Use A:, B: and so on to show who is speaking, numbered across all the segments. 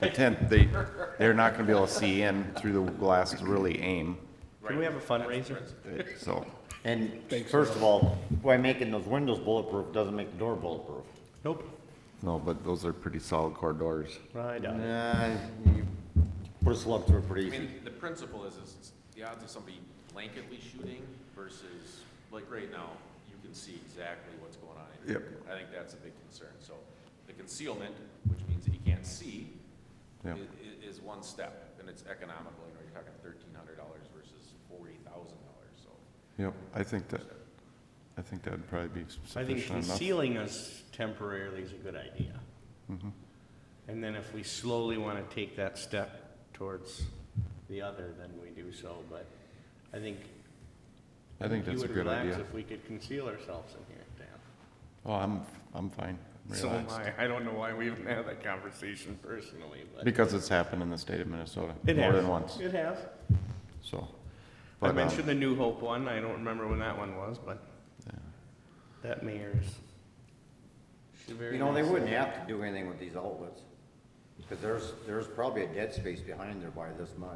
A: the tent, they, they're not gonna be able to see in through the glass to really aim,
B: Can we have a fundraiser?
A: It- so.
C: And first of all, by making those windows bulletproof doesn't make the door bulletproof.
B: Nope.
A: No, but those are pretty solid core doors.
B: I doubt it.
C: Nah, you put a slug through it pretty
D: I
C: easy.
D: mean, the principle is, is the odds of somebody blanketly shooting versus, like right now, you can see exactly what's going on. in here. I think that's a big concern. So the concealment, which means that you can't see, i-
A: Yeah.
D: i- is one step, and it's economical. You know, you're talking thirteen hundred dollars versus forty thousand dollars, so.
A: Yep, I think that, I think that'd probably be
B: I think
A: sufficient enough.
B: concealing us temporarily is a good idea.
A: Mm-hmm.
B: And then if we slowly want to take that step towards the other, then we do so, but I think.
A: I think
B: you
A: that's a
B: would
A: good
B: relax
A: idea.
B: If we could conceal ourselves in here, Dan.
A: Oh, I'm, I'm fine, I'm
B: So am
A: relaxed.
B: I. I don't know why we even had that conversation personally, but.
A: Because it's happened in the state of Minnesota,
B: It
A: more
B: has.
A: than once,
B: It has.
A: so.
B: I
A: but, um,
B: mentioned the New Hope one. I don't remember when that one was, but that mayor's. She very
C: You know, they
B: nice.
C: wouldn't have to do anything with these outlets, because there's, there's probably a dead space behind there by this much.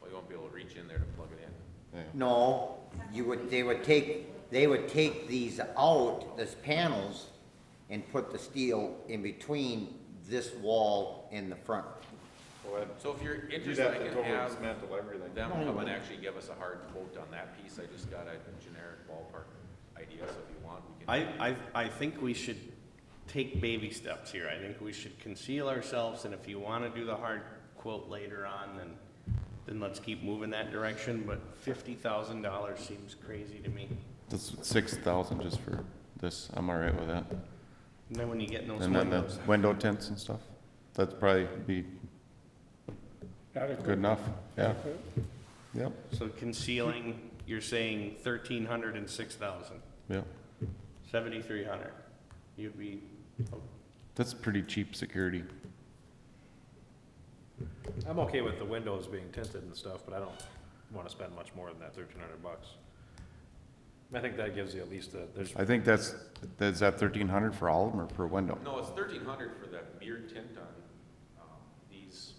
D: Well, you won't be able to reach in there to plug it in.
A: yeah.
C: No, you would, they would take, they would take these out, these panels, and put the steel in between this wall and the front.
D: So if you're interested, I can have
A: everything.
D: them come and actually give us a hard quote on that piece. I just got a generic ballpark idea, so if you want, we can.
B: I, I, I think we should take baby steps here. I think we should conceal ourselves, and if you want to do the hard quote later on, then, then let's keep moving that direction, but fifty thousand dollars seems crazy to me.
A: That's six thousand just for this, I'm all right with that.
B: And then when you get in those
A: And then the
B: windows,
A: window tints and stuff, that'd probably be good enough, yeah. Yep,
B: so concealing, you're saying thirteen hundred and six thousand,
A: yep.
B: seventy-three hundred. You'd be,
A: That's pretty cheap security.
E: I'm okay with the windows being tinted and stuff, but I don't wanna spend much more than that thirteen hundred bucks. I think that gives you at least a, there's,
A: I think that's, that's at thirteen hundred for all of them or per window?
D: No, it's thirteen hundred for the mirrored tint on, um, these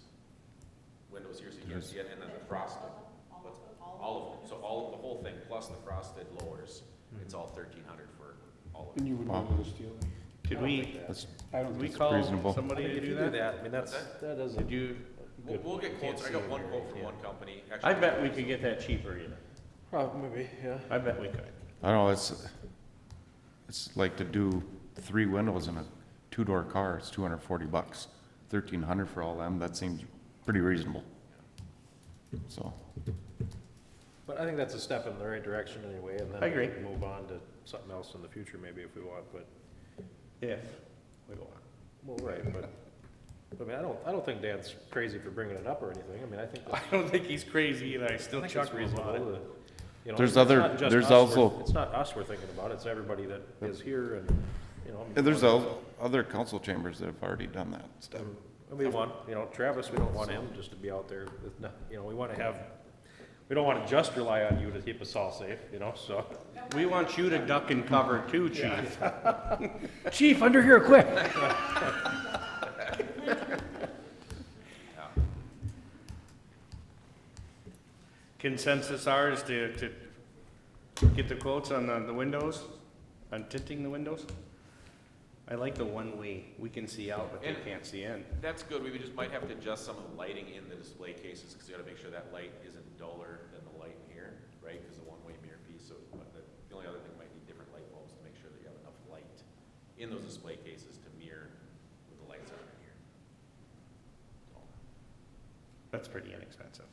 D: windows here, so you can see it, and then the frosted. What's- All of them, so all, the whole thing, plus the frosted lowers,
B: Hmm.
D: it's all thirteen hundred for all of them.
F: And you would
A: Wow.
F: know this deal.
B: could we,
A: That's,
F: I
B: could
F: don't
B: we
F: think,
B: call
A: reasonable.
B: somebody
E: if
B: to
E: you
B: do
E: do
B: that?
E: that, I mean, that's,
D: What's
E: that
B: Could
E: doesn't.
B: you,
D: We'll, we'll get
E: Can't
D: quotes, I
E: see
D: got
E: it
D: one
E: in
D: quote
E: there,
D: from
E: yeah.
D: one company.
B: I
D: Actually,
B: bet we could get that cheaper either.
E: Probably, maybe, yeah.
B: I bet we could.
A: I don't know, it's, it's like to do three windows in a two-door car, it's two hundred and forty bucks. Thirteen hundred for all of them, that seems pretty reasonable. So,
E: But I think that's a step in the right direction anyway, and then.
B: I agree.
E: we can Move on to something else in the future maybe if we want, but,
B: If we want.
E: well, right, but, I mean, I don't, I don't think Dan's crazy for bringing it up or anything, I mean, I think.
B: I don't think he's crazy, and I still
E: I think it's
B: chuckle about it.
E: reasonable to, you know,
A: There's
E: it's
A: other-
E: not just
A: there's
E: us we're-
A: also-
E: It's not us we're thinking about, it's everybody that is here and, you know. I mean,
A: and there's
E: one-
A: al- other council chambers that have already done that stuff.
E: And we want, you know, Travis, we don't want him just to be out there with, no- you know, we wanna have, we don't wanna just rely on you to keep us all safe, you know, so.
B: We want you to duck and cover too, chief.
E: Chief, under here, quick!
B: Consensus are is to, to get the quotes on the, the windows, on tinting the windows? I like the one-way, we can see out, but they
D: And-
B: can't see in.
D: That's good, we just might have to adjust some of the lighting in the display cases, because you gotta make sure that light isn't duller than the light in here, right? Because the one-way mirror piece, so but the, the only other thing might need different light bulbs to make sure that you have enough light in those display cases to mirror with the lights on in here.
B: That's pretty inexpensive.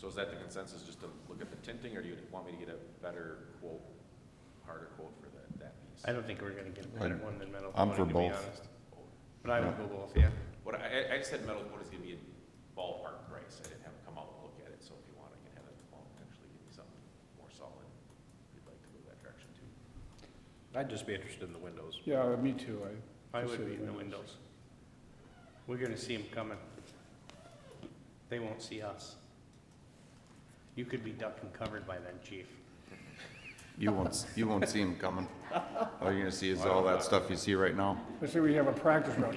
D: So is that the consensus, just to look at the tinting, or do you want me to get a better quote, harder quote for that, that piece?
B: I don't think we're gonna get a better
A: I'm-
B: one than metal
A: I'm for
B: coating, to be
A: both.
B: honest. But I would go both, yeah.
D: What I, I- I just had metal quote is gonna be a ballpark price, I didn't have it come out and look at it, so if you want, I can have it come out and actually give me something more solid, if you'd like to go that direction too.
E: I'd just be interested in the windows.
F: yeah, me too,
B: I
F: I.
B: would be in the windows. We're gonna see them coming. They won't see us. You could be duck and covered by then, chief.
A: You won't, s- you won't see them coming. All you're gonna see is all that stuff you see right now.
F: Let's say we have a practice round.